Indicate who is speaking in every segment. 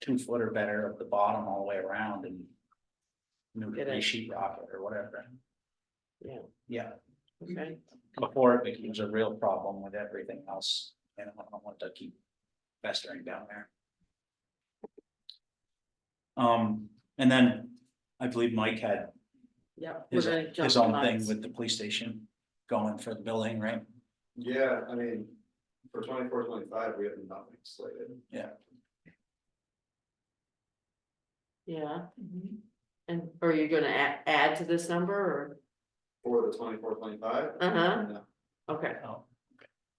Speaker 1: two foot or better of the bottom all the way around and. New,
Speaker 2: Get it.
Speaker 1: re sheet rock it or whatever.
Speaker 2: Yeah.
Speaker 1: Yeah,
Speaker 2: okay,
Speaker 1: before it becomes a real problem with everything else, and I don't want to keep festering down there. Um, and then I believe Mike had
Speaker 2: yeah. we're
Speaker 1: his,
Speaker 2: gonna jump
Speaker 1: his own
Speaker 2: the
Speaker 1: thing
Speaker 2: lines.
Speaker 1: with the police station going for the building, right?
Speaker 3: Yeah, I mean, for 24, 25, we have nothing slated.
Speaker 2: Yeah,
Speaker 4: Mm-hmm.
Speaker 2: and are you gonna add, add to this number
Speaker 3: For the 24, 25.
Speaker 2: or, uh-huh,
Speaker 3: No.
Speaker 2: okay,
Speaker 1: Oh,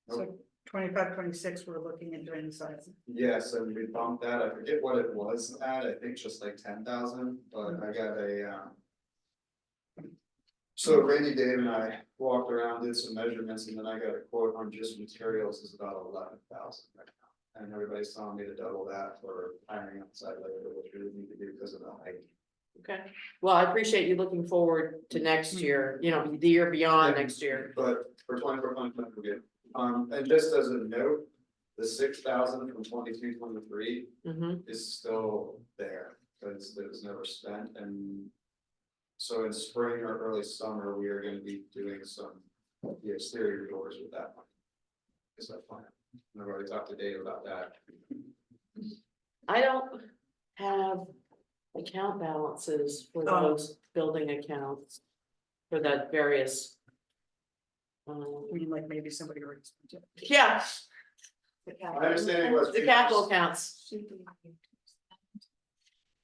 Speaker 4: So twenty-five, twenty-six, we're looking at doing the size.
Speaker 3: Yes, and we bumped that, I forget what it was at, I think just like ten thousand, but I got a, um. So Randy, Dave and I walked around, did some measurements, and then I got a quote on just materials is about eleven thousand right now. And everybody's telling me to double that for hiring outside labor, which we need to do because of the height.
Speaker 2: okay. Well, I appreciate you looking forward to next year, you know, the year beyond
Speaker 3: Yeah.
Speaker 2: next year.
Speaker 3: But for twenty-four, twenty-five, we're good. Um, and just as a note, the six thousand from twenty-two, twenty-three
Speaker 2: hmm
Speaker 3: is still there, because it was never spent and. So in spring or early summer, we are gonna be doing some, the exterior doors with that money. Is that plan? And I've already talked to Dave about that.
Speaker 2: I don't have account balances for
Speaker 4: Oh.
Speaker 2: those building accounts. For that various. Um,
Speaker 4: I mean, like maybe somebody already. spent it.
Speaker 2: yeah,
Speaker 3: My understanding was.
Speaker 2: the capital accounts,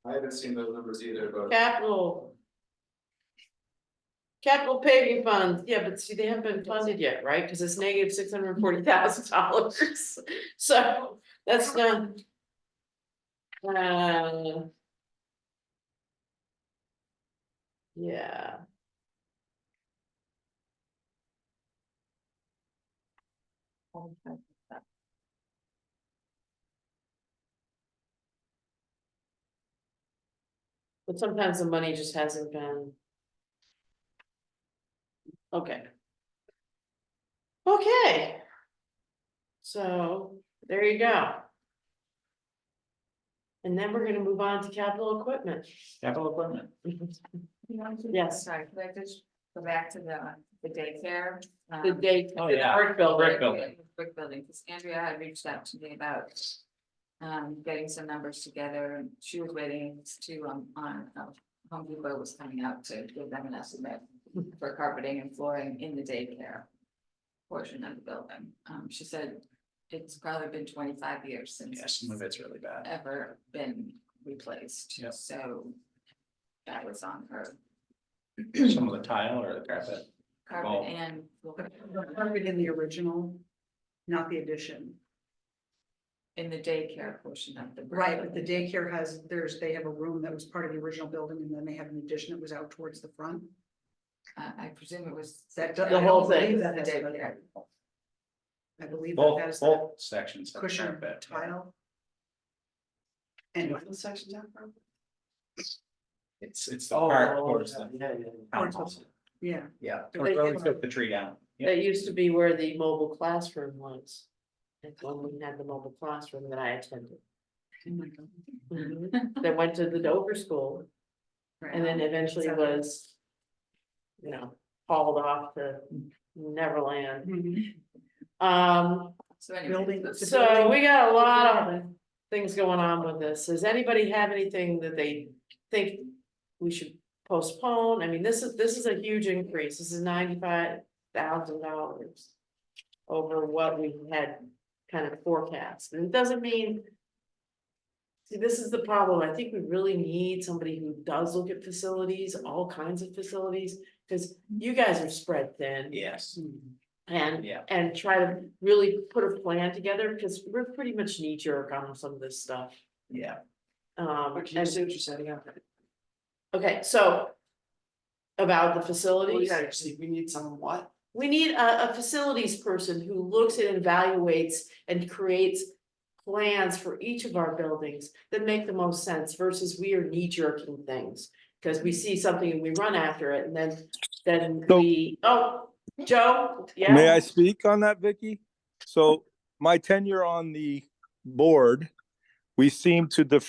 Speaker 3: I haven't seen those numbers either, but
Speaker 2: capital. Capital paving funds, yeah, but see, they haven't been funded yet, right? Because it's negative six hundred and forty thousand dollars, so that's not. Uh. Yeah. But sometimes the money just hasn't been. Okay. Okay. So, there you go. And then we're gonna move on to capital equipment.
Speaker 1: capital equipment.
Speaker 5: You want to-
Speaker 2: Yes.
Speaker 5: Sorry, could I just go back to the, the daycare?
Speaker 2: The
Speaker 5: um,
Speaker 2: date.
Speaker 1: Oh, yeah.
Speaker 2: Art building.
Speaker 1: brick building.
Speaker 5: Brick building, because Andrea had reached out to me about um, getting some numbers together, and she was waiting to, um, on, uh, Home Depot was coming out to give them an estimate for carpeting and flooring in the daycare portion of the building. Um, she said it's probably been twenty-five years since.
Speaker 1: Yeah, some of it's really bad.
Speaker 5: ever been replaced,
Speaker 1: Yep.
Speaker 5: so that was on her
Speaker 1: Some of the tile or the carpet. Wow.
Speaker 5: carpet and.
Speaker 4: But the carpet in the original, not the addition.
Speaker 5: In the daycare portion of the.
Speaker 4: Right, but the daycare has, there's, they have a room that was part of the original building and then they have an addition that was out towards the front.
Speaker 5: Uh, I, I presume it was.
Speaker 4: That
Speaker 2: The
Speaker 4: doesn't.
Speaker 2: whole
Speaker 4: I believe
Speaker 2: thing.
Speaker 4: that
Speaker 5: The
Speaker 4: has been-
Speaker 5: daycare.
Speaker 4: I believe that
Speaker 1: Both,
Speaker 4: has that
Speaker 1: both sections. have
Speaker 4: cushion
Speaker 1: carpet.
Speaker 4: tile. And
Speaker 3: What section's that from?
Speaker 1: It's, it's the park towards the townhouse.
Speaker 4: yeah,
Speaker 1: Yeah,
Speaker 4: But
Speaker 1: towards
Speaker 4: they
Speaker 1: where we
Speaker 4: did-
Speaker 1: took the tree down. Yeah.
Speaker 2: That used to be where the mobile classroom was. That's when we had the mobile classroom that I attended. Mhm. That went to the Dover School and then eventually was. You know, hauled off to Neverland.
Speaker 4: Mhm.
Speaker 2: Um,
Speaker 5: So anyway,
Speaker 4: building. the
Speaker 2: so we got a lot of
Speaker 4: building-
Speaker 2: things going on with this. Does anybody have anything that they think we should postpone? I mean, this is, this is a huge increase. This is ninety-five thousand dollars over what we had kind of forecast. And it doesn't mean see, this is the problem. I think we really need somebody who does look at facilities, all kinds of facilities, because you guys are spread thin.
Speaker 1: Yes,
Speaker 2: And
Speaker 1: yeah.
Speaker 2: and try to really put a plan together, because we're pretty much knee jerk on some of this stuff.
Speaker 1: Yeah,
Speaker 2: Um,
Speaker 4: Okay,
Speaker 2: and-
Speaker 4: so what you're setting up.
Speaker 2: okay, so. About the facilities,
Speaker 4: see, we need some what?
Speaker 2: we need a, a facilities person who looks and evaluates and creates. Plans for each of our buildings that make the most sense versus we are knee jerking things. Cause we see something and we run after it and then, then
Speaker 6: So-
Speaker 2: we, oh, Joe, yeah.
Speaker 6: May I speak on that, Vicky? So my tenure on the board, we seem to defer